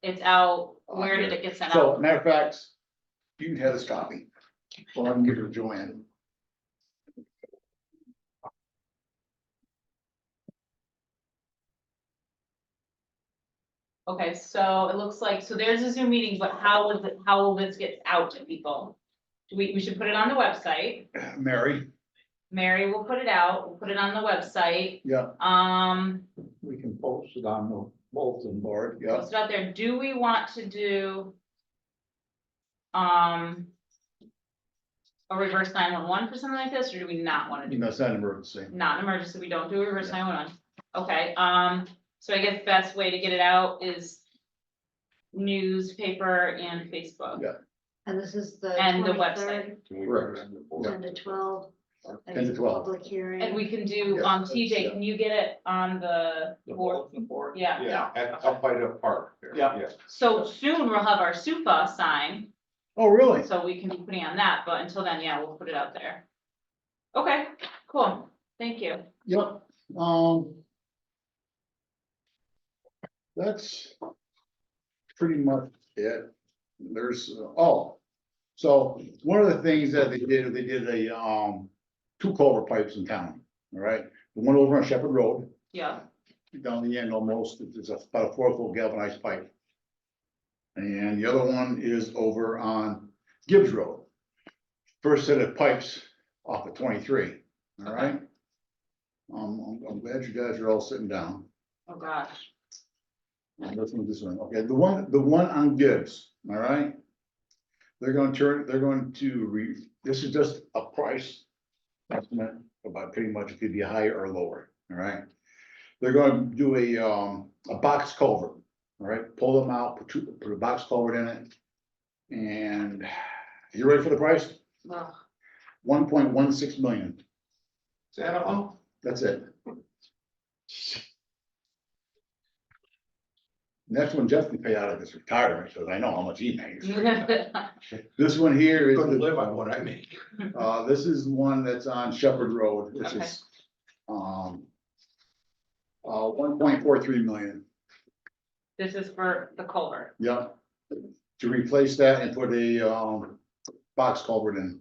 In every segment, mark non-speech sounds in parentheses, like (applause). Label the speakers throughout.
Speaker 1: it's out, where did it get sent
Speaker 2: Oh, So
Speaker 1: out?
Speaker 2: matter of fact, you had a copy. Well, I can give it to Joanne.
Speaker 1: Okay, so it looks like, so there's a Zoom meeting, but how will it, how will this get out to people? Do We, we should put it on the website,
Speaker 2: Mary,
Speaker 1: Mary will put it out, we'll put it on the website,
Speaker 2: yeah,
Speaker 1: um,
Speaker 2: we can post it on the bulletin board, yeah.
Speaker 1: post it out there, do we want to do? Um. A reverse nine one one for something like this, or do we not wanna do
Speaker 2: You know, it's not an emergency.
Speaker 1: not an emergency, we don't do a reverse nine one one. Okay, um, so I guess the best way to get it out is newspaper and Facebook.
Speaker 2: Yeah.
Speaker 3: And this is the
Speaker 1: And the
Speaker 3: twenty-third,
Speaker 2: Correct.
Speaker 3: ten to twelve. so
Speaker 2: 10
Speaker 3: that
Speaker 2: to
Speaker 3: is a
Speaker 2: 12.
Speaker 3: Public hearing.
Speaker 1: And we can do,
Speaker 2: Yeah,
Speaker 1: um,
Speaker 2: that's-
Speaker 1: TJ, can you get it on the board? Yeah,
Speaker 4: Yeah, at, up by the park. there,
Speaker 2: Yeah.
Speaker 1: so soon we'll have our SUPA sign,
Speaker 2: Oh, really?
Speaker 1: so we can be putting on that, but until then, yeah, we'll put it out there. Okay, cool, thank you.
Speaker 2: Yep, um. That's. Pretty much it. There's, uh, oh. So one of the things that they did, they did a, um, two culvert pipes in town, all right? The one over on Shepherd Road,
Speaker 1: Yeah,
Speaker 2: down the end almost, it's about a four foot galvanized pipe. And the other one is over on Gibbs Road. First set of pipes off of twenty-three, all right? Um, I'm- I'm glad you guys are all sitting down.
Speaker 1: oh gosh,
Speaker 2: I'm listening to this one, okay, the one, the one on Gibbs, all right? They're gonna turn, they're going to re, this is just a price estimate about pretty much it could be higher or lower, all right? They're gonna do a, um, a box culvert, all right, pull them out, put two, put a box culvert in it. And you ready for the price?
Speaker 1: Ugh. (laughs)
Speaker 2: One point one six million,
Speaker 4: Is that all?
Speaker 2: that's it. Next one Jeff can pay out of his retirement, because I know how much he makes. This one here is
Speaker 4: Couldn't
Speaker 2: the
Speaker 4: live on what I make.
Speaker 2: Uh, this is one that's on Shepherd Road, which
Speaker 1: Okay.
Speaker 2: is, um. Uh, one point four three million,
Speaker 1: This is for the culvert,
Speaker 2: yeah, to replace that and put a, um, box culvert in.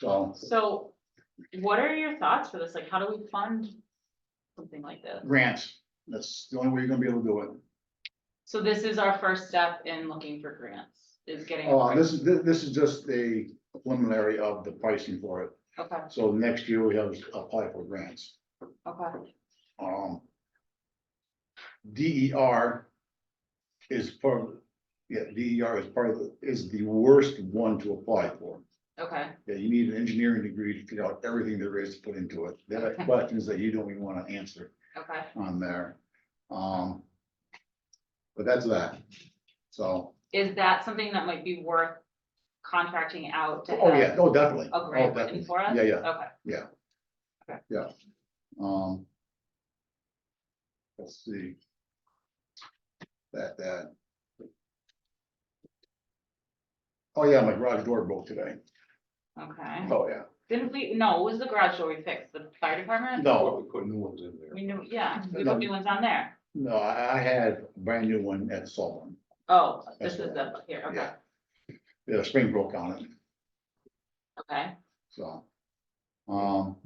Speaker 2: So,
Speaker 1: so what are your thoughts for this, like, how do we fund something like this?
Speaker 2: grants, that's the only way you're gonna be able to do it.
Speaker 1: So this is our first step in looking for grants, is getting. a
Speaker 2: Uh,
Speaker 1: grant.
Speaker 2: this is, thi- this is just a preliminary of the pricing for it,
Speaker 1: Okay,
Speaker 2: so next year we have to apply for grants.
Speaker 1: okay,
Speaker 2: um. DER is part, of- yeah, DER is part of, the- is the worst one to apply for.
Speaker 1: okay,
Speaker 2: Yeah, you need an engineering degree to figure out everything there is to put into it. There are
Speaker 1: (laughs) Okay.
Speaker 2: questions that you don't even wanna answer
Speaker 1: okay.
Speaker 2: on there. Um. But that's that. So,
Speaker 1: Is that something that might be worth contracting out to
Speaker 2: oh, yeah,
Speaker 1: have
Speaker 2: oh, definitely.
Speaker 1: a
Speaker 2: Oh,
Speaker 1: grant written
Speaker 2: definitely.
Speaker 1: for us?
Speaker 2: Yeah, yeah.
Speaker 1: Okay,
Speaker 2: Um. Let's see. That, that. Oh, yeah, my garage door broke today.
Speaker 1: okay.
Speaker 2: Oh, yeah.
Speaker 1: Didn't we, no, it was the garage door we fixed, the fire department?
Speaker 2: No,
Speaker 4: Well, Oh, we put new ones in there.
Speaker 1: We knew, yeah, we
Speaker 2: No.
Speaker 1: put new ones on there.
Speaker 2: no, I, I had a brand new one at Sullivan.
Speaker 1: Oh, this
Speaker 2: That's
Speaker 1: is the, here, okay,
Speaker 2: Yeah. Yeah, the spring broke on it,
Speaker 1: okay.
Speaker 2: so. Um,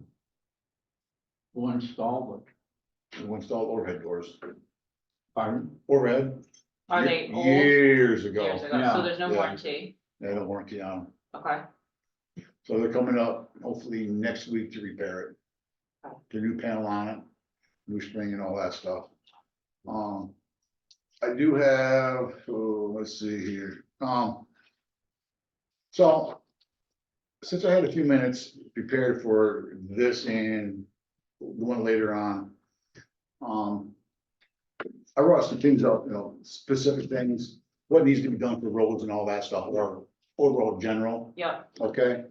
Speaker 5: We'll install
Speaker 2: we installed overhead doors,
Speaker 5: pardon?
Speaker 2: overhead.
Speaker 1: Are
Speaker 2: ye-
Speaker 1: they old?
Speaker 2: Years
Speaker 1: Years
Speaker 2: ago,
Speaker 1: ago, so
Speaker 5: Yeah,
Speaker 1: there's no
Speaker 2: yeah.
Speaker 1: warranty,
Speaker 2: they had a warranty on, 'em.
Speaker 1: okay,
Speaker 2: so they're coming up hopefully next week to repair it. The new panel on it, new spring and all that stuff. Um, I do have, oh, let's see here, um. So, since I had a few minutes prepared for this and the one later on, um. I wrote some things up, you know, specific things, what needs to be done for roads and all that stuff, or overall general,
Speaker 1: yep,
Speaker 2: okay?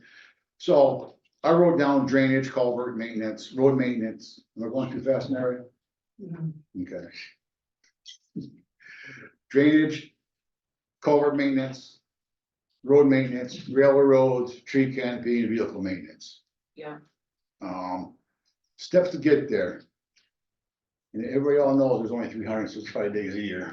Speaker 2: So I wrote down drainage, culvert maintenance, road maintenance, am I going too fast, Mary?
Speaker 3: Mm-hmm.
Speaker 2: Okay. Drainage, culvert maintenance, road maintenance, railroads, tree canopy, and vehicle maintenance.
Speaker 1: Yeah.
Speaker 2: Um, steps to get there. And everybody all knows there's only three hundred and sixty-five days a year.